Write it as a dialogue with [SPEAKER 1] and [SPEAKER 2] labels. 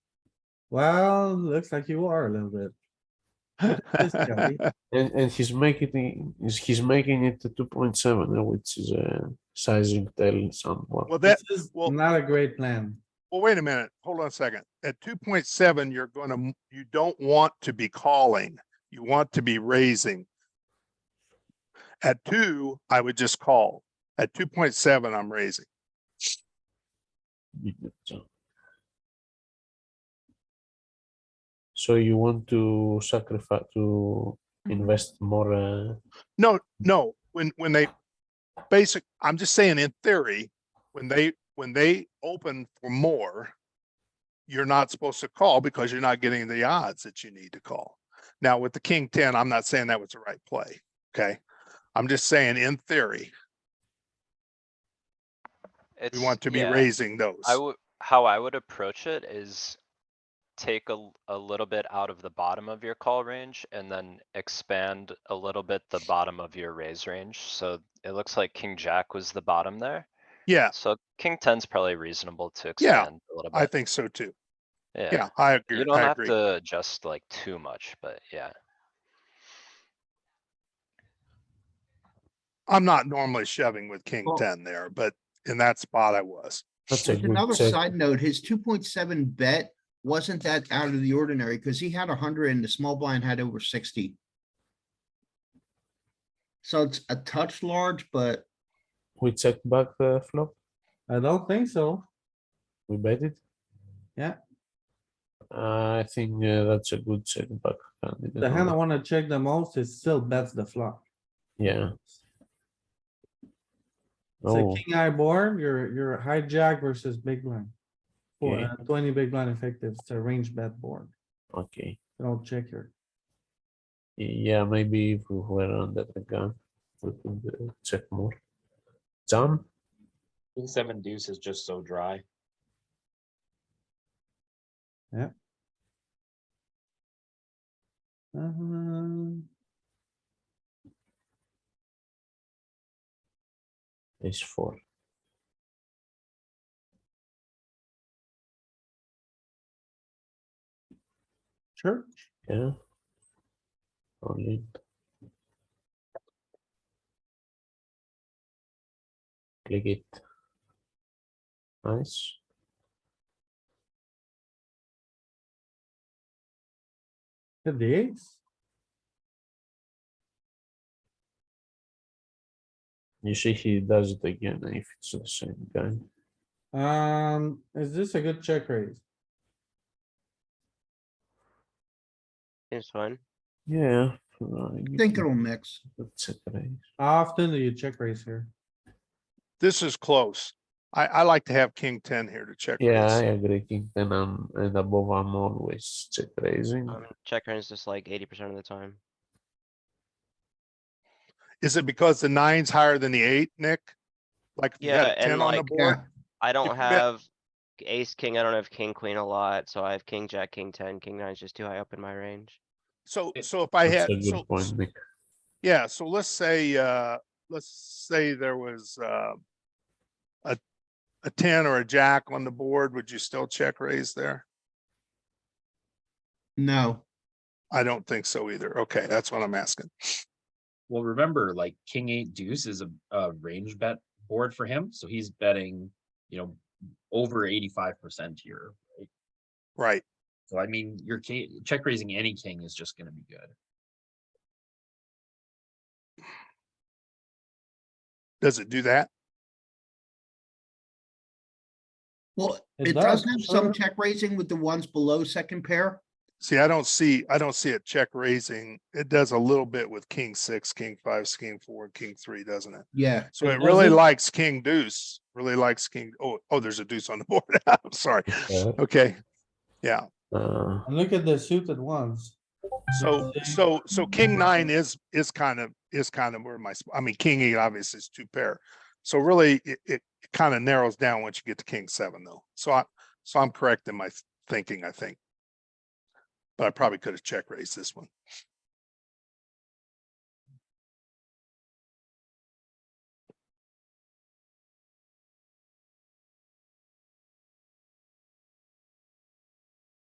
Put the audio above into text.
[SPEAKER 1] Well, looks like you are a little bit. Just jelly.
[SPEAKER 2] And, and he's making the, he's, he's making it to two point seven, which is a sizing tell somewhat.
[SPEAKER 3] Well, that,
[SPEAKER 1] This is
[SPEAKER 3] well-
[SPEAKER 1] not a great plan.
[SPEAKER 3] well, wait a minute, hold on a second. At two point seven, you're gonna, m- you don't want to be calling. You want to be raising. At two, I would just call. At two point seven, I'm raising.
[SPEAKER 2] So- So you want to sacrifice, to
[SPEAKER 1] Mm-hmm.
[SPEAKER 2] invest more, uh,
[SPEAKER 3] No, no, when, when they, basic, I'm just saying in theory, when they, when they open for more, you're not supposed to call because you're not getting the odds that you need to call. Now with the king ten, I'm not saying that was the right play, okay? I'm just saying in theory, we
[SPEAKER 4] It's-
[SPEAKER 3] want to be
[SPEAKER 4] yeah,
[SPEAKER 3] raising those.
[SPEAKER 4] I would, how I would approach it is take a, l- a little bit out of the bottom of your call range and then expand a little bit the bottom of your raise range. So it looks like king jack was the bottom there.
[SPEAKER 3] Yeah,
[SPEAKER 4] So king ten's probably reasonable to
[SPEAKER 3] Yeah,
[SPEAKER 4] expand a little
[SPEAKER 3] I
[SPEAKER 4] bit.
[SPEAKER 3] think so too.
[SPEAKER 4] Yeah,
[SPEAKER 3] Yeah, I
[SPEAKER 4] you
[SPEAKER 3] agree,
[SPEAKER 4] don't
[SPEAKER 3] I
[SPEAKER 4] have
[SPEAKER 3] agree.
[SPEAKER 4] to adjust like too much, but yeah.
[SPEAKER 3] I'm not normally shoving with king
[SPEAKER 5] Well-
[SPEAKER 3] ten there, but in that spot I was.
[SPEAKER 2] that's a
[SPEAKER 5] There's
[SPEAKER 2] good
[SPEAKER 5] another
[SPEAKER 2] check.
[SPEAKER 5] side note, his two point seven bet wasn't that out of the ordinary because he had hundred and the small blind had over sixty. So it's a touch large, but
[SPEAKER 2] We check back the flop,
[SPEAKER 1] I don't think so.
[SPEAKER 2] we bet it.
[SPEAKER 1] Yeah.
[SPEAKER 2] I think uh, that's a good check back. candidate
[SPEAKER 1] The hand I
[SPEAKER 2] on-
[SPEAKER 1] wanna check the most is still bets the flop.
[SPEAKER 2] Yeah.
[SPEAKER 1] It's a
[SPEAKER 2] Oh,
[SPEAKER 1] king eye board, you're, you're hijack versus big blind. Or
[SPEAKER 2] Yeah.
[SPEAKER 1] uh, twenty big blind effective, it's a range bet board.
[SPEAKER 2] okay.
[SPEAKER 1] Don't check here.
[SPEAKER 2] Yeah, maybe if we were under the gun, we could uh, check more. Jam,
[SPEAKER 6] King seven deuce is just so dry.
[SPEAKER 1] Um,
[SPEAKER 2] is four.
[SPEAKER 1] Sure,
[SPEAKER 2] Yeah. Only. Click it. Nice.
[SPEAKER 1] hit the eights.
[SPEAKER 2] You see, he does it again if it's the same guy.
[SPEAKER 1] Um, is this a good check raise?
[SPEAKER 7] It's fine.
[SPEAKER 2] Yeah. uh,
[SPEAKER 5] I
[SPEAKER 2] you
[SPEAKER 5] think
[SPEAKER 2] can
[SPEAKER 5] it'll mix.
[SPEAKER 2] put check raise.
[SPEAKER 1] How often do you check raise here?
[SPEAKER 3] This is close. I, I like to have king ten here to check.
[SPEAKER 2] Yeah, I
[SPEAKER 3] raise.
[SPEAKER 2] agree. King ten um, and above, I'm always check raising.
[SPEAKER 7] Um, check turns just like eighty percent of the time.
[SPEAKER 3] Is it because the nine's higher than the eight, Nick? Like if you had
[SPEAKER 7] Yeah,
[SPEAKER 3] a
[SPEAKER 7] and
[SPEAKER 3] ten on the
[SPEAKER 7] like-
[SPEAKER 3] board?
[SPEAKER 7] I don't
[SPEAKER 3] bet-
[SPEAKER 7] have ace, king, I don't have king, queen a lot, so I have king, jack, king, ten, king nine's just too high up in my range.
[SPEAKER 3] So, so if I had,
[SPEAKER 2] That's a
[SPEAKER 3] so,
[SPEAKER 2] good point, Nick.
[SPEAKER 3] yeah, so let's say, uh, let's say there was, uh, a, a ten or a jack on the board, would you still check raise there?
[SPEAKER 5] No,
[SPEAKER 3] I don't think so either. Okay, that's what I'm asking.
[SPEAKER 6] Well, remember, like king eight deuce is a, a range bet board for him, so he's betting, you know, over eighty-five percent here. right?
[SPEAKER 3] Right.
[SPEAKER 6] So I mean, your king, check raising any king is just gonna be good.
[SPEAKER 3] Does it do that?
[SPEAKER 5] well,
[SPEAKER 1] It
[SPEAKER 5] it
[SPEAKER 1] does,
[SPEAKER 5] does have
[SPEAKER 2] Uh-huh.
[SPEAKER 1] sure.
[SPEAKER 5] some check raising with the ones below second pair.
[SPEAKER 3] See, I don't see, I don't see it check raising. It does a little bit with king six, king five, king four, and king three, doesn't it?
[SPEAKER 5] Yeah,
[SPEAKER 3] So
[SPEAKER 1] It
[SPEAKER 3] it really
[SPEAKER 1] doesn't-
[SPEAKER 3] likes king deuce, really likes king, oh, oh, there's a deuce on the board. I'm sorry.
[SPEAKER 2] Yeah.
[SPEAKER 3] Okay. Yeah.
[SPEAKER 2] Uh,
[SPEAKER 1] And look at the suited ones.
[SPEAKER 3] So,
[SPEAKER 1] Six,
[SPEAKER 3] so, so king nine is, is kind of, is kind of where my, sp- I mean, king eight obviously is two pair. So really, it, it kind of narrows down once you get to king seven though. So I, so I'm correct in my th- thinking, I think. But I probably could have check raised this one.